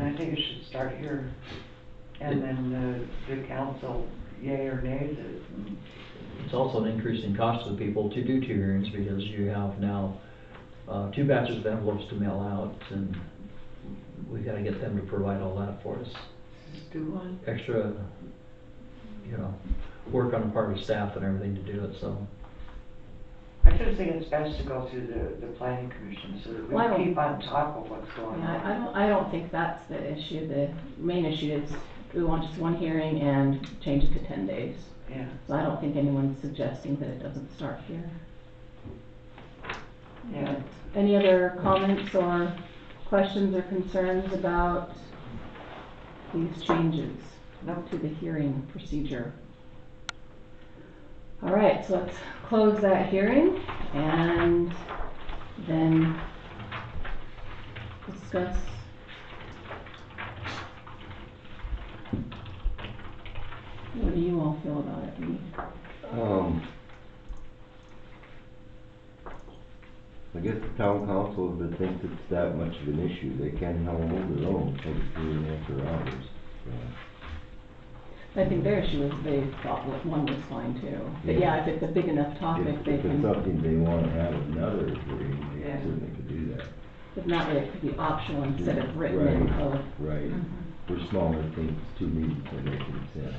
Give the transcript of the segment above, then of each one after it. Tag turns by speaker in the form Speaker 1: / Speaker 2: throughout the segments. Speaker 1: I think it should start here, and then the, the council, yay or nays it.
Speaker 2: It's also an increase in cost to the people to do two hearings because you have now, uh, two batches of envelopes to mail out and we gotta get them to provide all that for us.
Speaker 1: Just do one.
Speaker 2: Extra, you know, work on the part of staff and everything to do it, so.
Speaker 1: I just think it's best to go through the, the planning commission, so that
Speaker 3: Well, I
Speaker 1: we
Speaker 3: don't-
Speaker 1: keep on top of what's going
Speaker 3: Yeah, I I
Speaker 1: on.
Speaker 3: don't, I don't think that's the issue. The main issue is we want just one hearing and change it to ten days.
Speaker 1: Yeah,
Speaker 3: So I don't think anyone's suggesting that it doesn't start here.
Speaker 1: yeah.
Speaker 3: Any other comments or questions or concerns about these changes
Speaker 1: No,
Speaker 3: to the hearing procedure? All right, so let's close that hearing and then discuss. What do you all feel about it?
Speaker 4: Um, I guess the town council, if they think it's that much of an issue, they can not hold their own, take it through and after hours. so.
Speaker 3: I think their issue is they thought that one was fine too. But yeah, if it's a big enough topic,
Speaker 4: If
Speaker 3: they
Speaker 4: if
Speaker 3: can.
Speaker 4: it's something they wanna have another hearing, they
Speaker 1: Yeah.
Speaker 4: certainly could do that.
Speaker 3: If not, it could be optional instead of written in Mm-hmm.
Speaker 4: Right,
Speaker 3: code.
Speaker 4: Right, for smaller things, two meetings will make any sense.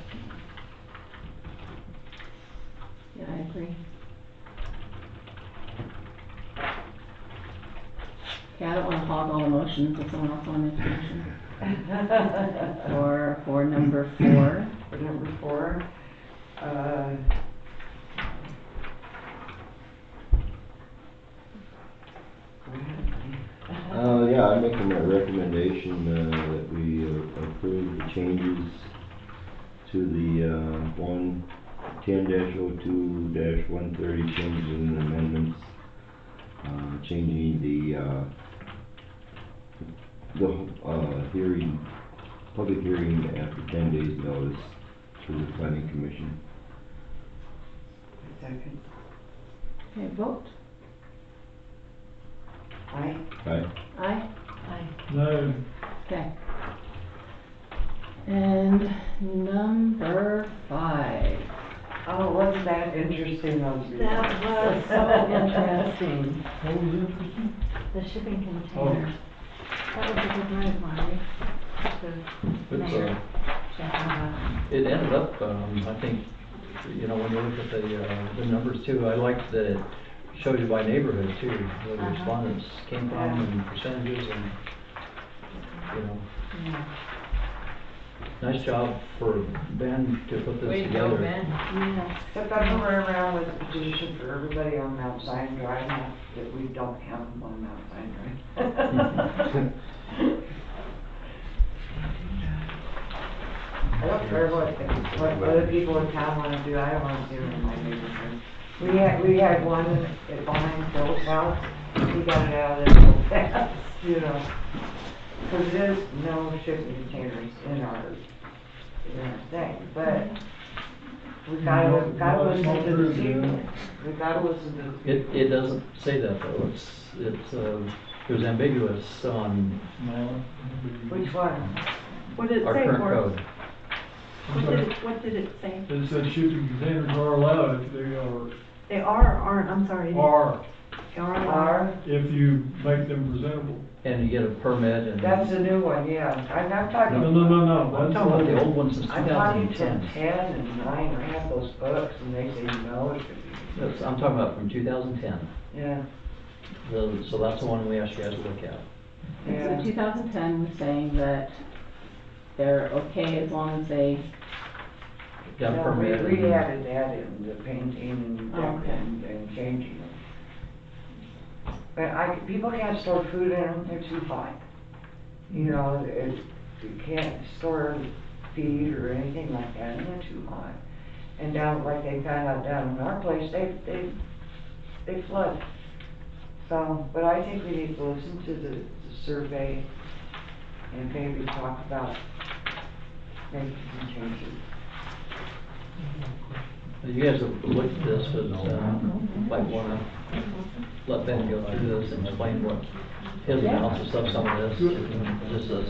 Speaker 3: Yeah, I agree. Okay, I don't wanna hog all the motions if someone else wanted to motion. For, for number four,
Speaker 1: For number four, uh,
Speaker 4: Uh, yeah, I make a recommendation, uh, that we uh, approve the changes to the, uh, one, ten dash oh two dash one thirty changes and amendments. Uh, changing the, uh, the, uh, hearing, public hearing after ten days notice to the planning commission.
Speaker 1: second,
Speaker 3: okay, vote,
Speaker 1: aye.
Speaker 4: Aye.
Speaker 3: aye,
Speaker 5: No,
Speaker 3: okay. And number five,
Speaker 1: Oh, wasn't that interesting, those results?
Speaker 6: That was so interesting.
Speaker 5: what was interesting?
Speaker 6: The shipping
Speaker 5: Oh,
Speaker 6: container. That was a good night, Marty. The
Speaker 2: It's,
Speaker 6: mayor
Speaker 2: uh,
Speaker 6: chatting about
Speaker 2: It ended up, um, I think, you know, when you look at the, uh, the numbers too, I liked that it showed you by neighborhood too, where the
Speaker 6: Uh-huh.
Speaker 2: respondents came from and percentages and, you know,
Speaker 6: it. Yeah.
Speaker 2: nice job for Ben to put this together.
Speaker 6: Yes.
Speaker 1: But that's what we're around with the petition for everybody on Mount Zion Drive, now that we don't have them on Mount Zion Drive. I don't care what, what other people in town wanna do, I don't wanna do it in my neighborhood. We had, we had one at behind Phil's house, he got it out of there so fast, you know. Cause there's no shipping containers in our, in our thing, but we gotta, we gotta
Speaker 5: No, it's not
Speaker 1: listen to the
Speaker 5: true,
Speaker 1: people.
Speaker 5: yeah.
Speaker 1: We gotta listen to the people.
Speaker 2: It, it doesn't say that though, it's, it's, uh, it was ambiguous on
Speaker 5: no.
Speaker 1: Which one?
Speaker 6: What did it
Speaker 2: our
Speaker 6: say,
Speaker 2: current
Speaker 6: Marty?
Speaker 2: code.
Speaker 5: I'm
Speaker 6: What did
Speaker 5: sorry.
Speaker 6: it, what did it say?
Speaker 5: It said shipping containers are allowed if they
Speaker 6: They are or aren't, I'm sorry.
Speaker 5: are, are,
Speaker 6: They are. or aren't.
Speaker 1: R,
Speaker 5: if you make them presentable.
Speaker 2: And you get a permit and.
Speaker 1: that's the new one, yeah. I'm not
Speaker 5: No,
Speaker 1: talking.
Speaker 5: no, no, no,
Speaker 2: I'm
Speaker 5: that's
Speaker 2: talking about the
Speaker 5: not,
Speaker 2: old one since two
Speaker 1: I'm talking
Speaker 2: thousand
Speaker 1: to
Speaker 2: and ten.
Speaker 1: ten and nine, I have those books and they say no, it should be.
Speaker 2: That's, I'm talking about from two thousand and ten.
Speaker 1: Yeah,
Speaker 2: The, so that's the one we asked you guys to look at.
Speaker 3: so
Speaker 1: yeah.
Speaker 3: two thousand ten was saying that they're okay as long as they
Speaker 2: Got a
Speaker 1: No, we-
Speaker 2: permit.
Speaker 1: We
Speaker 2: and-
Speaker 1: added that in, the painting and
Speaker 3: Oh, okay.
Speaker 1: and, and changing them. But I, people can't store food in them, they're too hot. You know, it, you can't store feed or anything like that, and they're too hot. And down, like they found out down in our place, they, they, they flood. So, but I think we need to listen to the, the survey and maybe talk about making some changes.
Speaker 2: You guys have looked at this, but, uh, might wanna let Ben go through this and explain what his analysis of some of this, just uh, a